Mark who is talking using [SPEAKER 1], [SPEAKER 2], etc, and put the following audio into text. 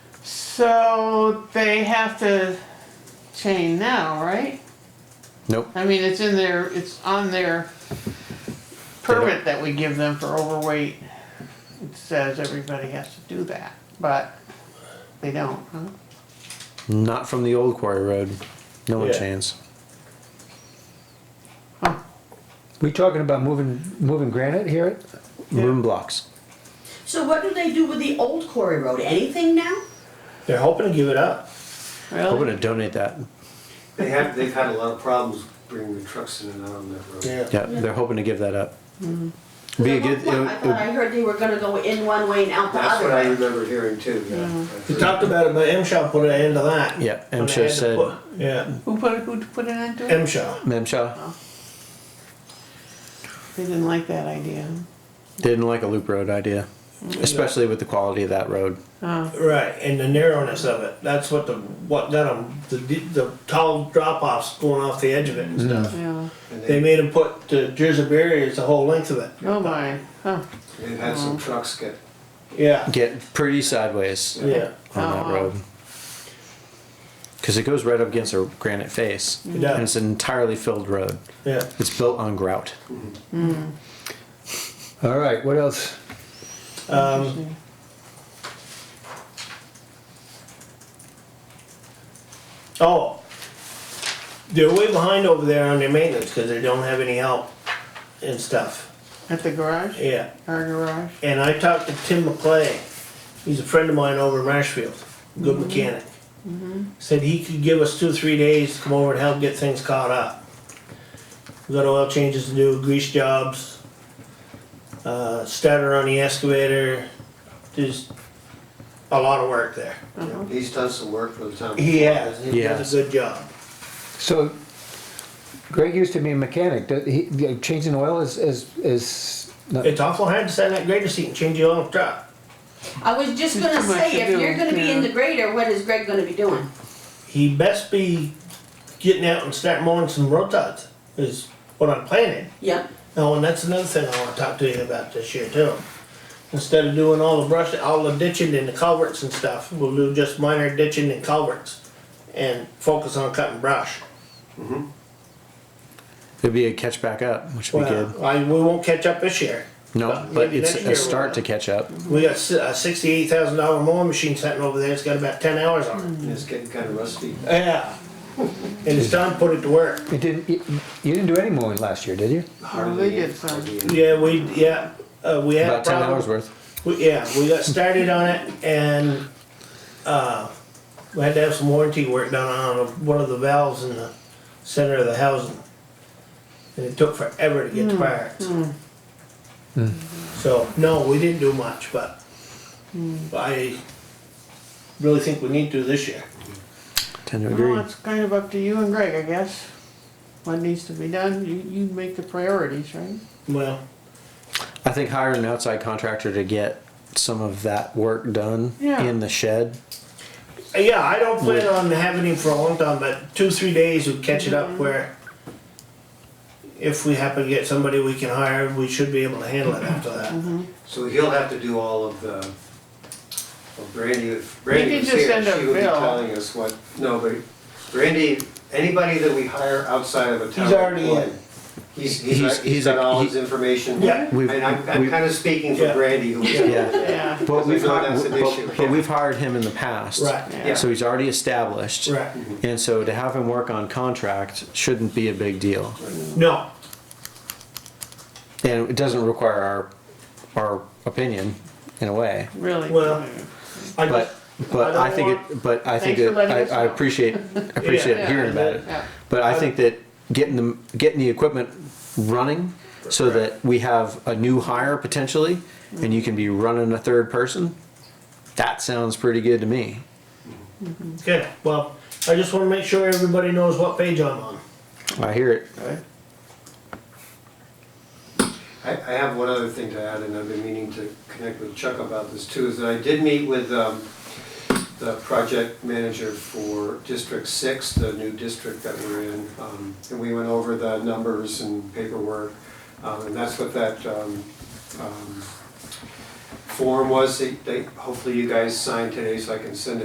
[SPEAKER 1] So they have to chain now, right?
[SPEAKER 2] Nope.
[SPEAKER 1] I mean, it's in their, it's on their permit that we give them for overweight. It says everybody has to do that, but they don't, huh?
[SPEAKER 2] Not from the old quarry road. No one
[SPEAKER 3] Yeah.
[SPEAKER 2] chains.
[SPEAKER 4] We talking about moving, moving granite here?
[SPEAKER 2] Room blocks.
[SPEAKER 5] So what do they do with the old quarry road? Anything now?
[SPEAKER 3] They're hoping to give it up. Oh.
[SPEAKER 2] I'm
[SPEAKER 1] Really?
[SPEAKER 2] gonna donate that.
[SPEAKER 6] They have, they've had a lot of problems bringing the trucks in and out on that road.
[SPEAKER 2] Yeah, they're hoping to give that up.
[SPEAKER 3] Mm-hmm.
[SPEAKER 2] Be a
[SPEAKER 5] Because
[SPEAKER 2] good.
[SPEAKER 5] at one point, I
[SPEAKER 2] it-
[SPEAKER 5] thought
[SPEAKER 2] it-
[SPEAKER 5] I heard they were gonna go in one way and out the
[SPEAKER 6] That's what I
[SPEAKER 5] other way.
[SPEAKER 6] remember hearing too, yeah. I've
[SPEAKER 3] They
[SPEAKER 6] heard-
[SPEAKER 3] talked about it, but MSHA put an end to that.
[SPEAKER 2] Yeah,
[SPEAKER 3] When they
[SPEAKER 2] MSHA
[SPEAKER 3] had to
[SPEAKER 2] said-
[SPEAKER 3] put- Yeah,
[SPEAKER 1] Who put, it- who put it into it?
[SPEAKER 3] MSHA. Oh.
[SPEAKER 2] Memshaw
[SPEAKER 1] They didn't like that idea.
[SPEAKER 2] didn't like a loop road idea,
[SPEAKER 3] Mm-hmm.
[SPEAKER 2] especially with the quality of that road.
[SPEAKER 1] Oh,
[SPEAKER 3] Right, and the narrowness of it. That's what the, what got them, the, the tall drop offs going off the edge of it
[SPEAKER 2] Mm-hmm.
[SPEAKER 3] and stuff.
[SPEAKER 1] Oh, yeah.
[SPEAKER 6] and
[SPEAKER 3] They
[SPEAKER 6] they-
[SPEAKER 3] made them put the Jersey barriers the whole length of it.
[SPEAKER 1] Oh, my, huh.
[SPEAKER 6] They've had some trucks get,
[SPEAKER 3] Yeah,
[SPEAKER 2] Get pretty sideways
[SPEAKER 3] yeah,
[SPEAKER 2] on that
[SPEAKER 1] Oh.
[SPEAKER 2] road. Because it goes right up against a granite face,
[SPEAKER 3] does.
[SPEAKER 2] and it's an entirely filled road.
[SPEAKER 3] yeah.
[SPEAKER 2] It's built on grout.
[SPEAKER 4] All right, what else?
[SPEAKER 3] Um, oh, they're way behind over there on their maintenance because they don't have any help and stuff.
[SPEAKER 1] At the garage,
[SPEAKER 3] Yeah,
[SPEAKER 1] our garage?
[SPEAKER 3] and I talked to Tim McClay. He's a friend of mine over in Marshfield, good mechanic. Said he could give us two or three days to come over and help get things caught up. We got oil changes to do, grease jobs, uh, starter on the excavator. There's a lot of work there.
[SPEAKER 6] you know, he's done some work for the town.
[SPEAKER 3] He has. He
[SPEAKER 2] Yes.
[SPEAKER 3] does a good job.
[SPEAKER 4] So Greg used to be a mechanic. Did he- yeah, Changing oil is, is, is, not-
[SPEAKER 3] It's awful hard to send that grader seat and change your own truck.
[SPEAKER 5] I was just gonna
[SPEAKER 1] Too much to
[SPEAKER 5] say, if
[SPEAKER 1] do,
[SPEAKER 5] you're gonna be in
[SPEAKER 1] yeah.
[SPEAKER 5] the grader, what is Greg gonna be doing?
[SPEAKER 3] He best be getting out and start mowing some road rotots. Is what I'm planning.
[SPEAKER 5] Yep.
[SPEAKER 3] Oh, and that's another thing I wanna talk to you about this year too. Instead of doing all the brush, all the ditching and the culverts and stuff, we'll do just minor ditching and culverts and focus on cutting brush.
[SPEAKER 2] It'd be a catch back up, which would be good.
[SPEAKER 3] Well, I, we won't catch up this year.
[SPEAKER 2] No,
[SPEAKER 3] but
[SPEAKER 2] but
[SPEAKER 3] maybe
[SPEAKER 2] it's
[SPEAKER 3] next
[SPEAKER 2] a
[SPEAKER 3] year
[SPEAKER 2] start to
[SPEAKER 3] we'll-
[SPEAKER 2] catch up.
[SPEAKER 3] We got si- a sixty-eight thousand dollar mowing machine sitting over there, it's got about ten hours on it.
[SPEAKER 6] And It's getting kinda rusty.
[SPEAKER 3] Yeah. And it's time to put it to work.
[SPEAKER 4] you didn't, you you didn't do any mowing last year, did you?
[SPEAKER 6] Hardly
[SPEAKER 1] they did
[SPEAKER 6] any-
[SPEAKER 1] some.
[SPEAKER 6] hardly any.
[SPEAKER 3] Yeah, we, yeah, uh, we had a
[SPEAKER 2] About ten
[SPEAKER 3] problem.
[SPEAKER 2] hours worth.
[SPEAKER 3] We- Yeah, we got started on it and, uh, we had to have some warranty work done on one of the valves in the center of the housing. And it took forever to get the parts. So, no, we didn't do much, but I really think we need to this year.
[SPEAKER 2] Tend to agree.
[SPEAKER 1] Well, it's kind of up to you and Greg, I guess. What needs to be done, you, you make the priorities, right?
[SPEAKER 3] Well,
[SPEAKER 2] I think hiring an outside contractor to get some of that work done
[SPEAKER 1] Yeah.
[SPEAKER 2] in the shed.
[SPEAKER 3] yeah, I don't plan on having him for a long time, but two, three days we catch it up where if we happen to get somebody we can hire, we should be able to handle it after that.
[SPEAKER 6] So he'll have to do all of the, well, Brandy, if
[SPEAKER 1] can
[SPEAKER 6] Brandy was
[SPEAKER 1] just
[SPEAKER 6] here,
[SPEAKER 1] send a
[SPEAKER 6] she would be
[SPEAKER 1] bill.
[SPEAKER 6] telling us what, no, but Brandy, anybody that we hire outside of a town.
[SPEAKER 3] He's already
[SPEAKER 6] employee,
[SPEAKER 3] in.
[SPEAKER 6] He's,
[SPEAKER 2] He's-
[SPEAKER 6] he's,
[SPEAKER 2] he's
[SPEAKER 6] he's got
[SPEAKER 2] a-
[SPEAKER 6] all
[SPEAKER 2] he-
[SPEAKER 6] his information.
[SPEAKER 3] Yeah.
[SPEAKER 2] We've-
[SPEAKER 6] And I'm, I'm
[SPEAKER 2] we've-
[SPEAKER 6] kinda speaking
[SPEAKER 3] Yeah.
[SPEAKER 6] for Brandy, who.
[SPEAKER 2] Yeah.
[SPEAKER 1] Yeah.
[SPEAKER 2] But we've,
[SPEAKER 6] I know
[SPEAKER 2] hi-
[SPEAKER 6] that's an issue.
[SPEAKER 2] but, but we've hired him in the past.
[SPEAKER 3] Right,
[SPEAKER 6] Yeah.
[SPEAKER 2] So he's already established.
[SPEAKER 3] right.
[SPEAKER 2] And so to have him work on contract shouldn't be a big deal.
[SPEAKER 3] No,
[SPEAKER 2] And it doesn't require our, our opinion in a way.
[SPEAKER 1] Really?
[SPEAKER 3] Well, I
[SPEAKER 2] But,
[SPEAKER 3] just,
[SPEAKER 2] but
[SPEAKER 3] I
[SPEAKER 2] I think
[SPEAKER 3] don't
[SPEAKER 2] it, but I think
[SPEAKER 1] Thanks
[SPEAKER 2] it,
[SPEAKER 1] for letting
[SPEAKER 2] I,
[SPEAKER 1] us
[SPEAKER 2] I
[SPEAKER 1] know.
[SPEAKER 2] appreciate, appreciate
[SPEAKER 1] Yeah.
[SPEAKER 2] hearing about it.
[SPEAKER 1] Yeah.
[SPEAKER 2] But I think that getting the, getting the equipment running so that we have a new hire potentially and you can be running a third person, that sounds pretty good to me.
[SPEAKER 3] okay, well, I just wanna make sure everybody knows what page I'm on.
[SPEAKER 2] I hear it.
[SPEAKER 6] I, I have one other thing to add, and I've been meaning to connect with Chuck about this too, is that I did meet with, um, the project manager for District Six, the new district that we're in, um, and we went over the numbers and paperwork, um, and that's what that, um, um, form was, that, that hopefully you guys signed today so I can send it